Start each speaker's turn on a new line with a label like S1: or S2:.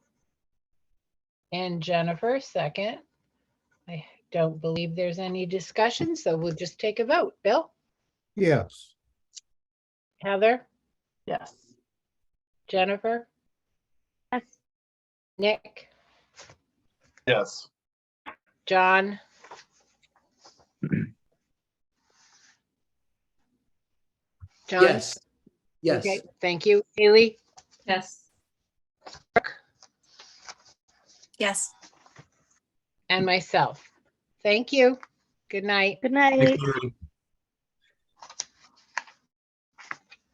S1: And Jennifer, second. I don't believe there's any discussion, so we'll just take a vote. Bill,
S2: Yes.
S1: Heather,
S3: Yes.
S1: Jennifer,
S4: Yes.
S1: Nick,
S5: Yes.
S1: John. John?
S6: Yes. Yes.
S1: Okay, Thank you. Haley,
S3: Yes.
S4: Yes.
S1: and myself. Thank you. Good night.
S4: Good night.
S6: Thanks, Lauren.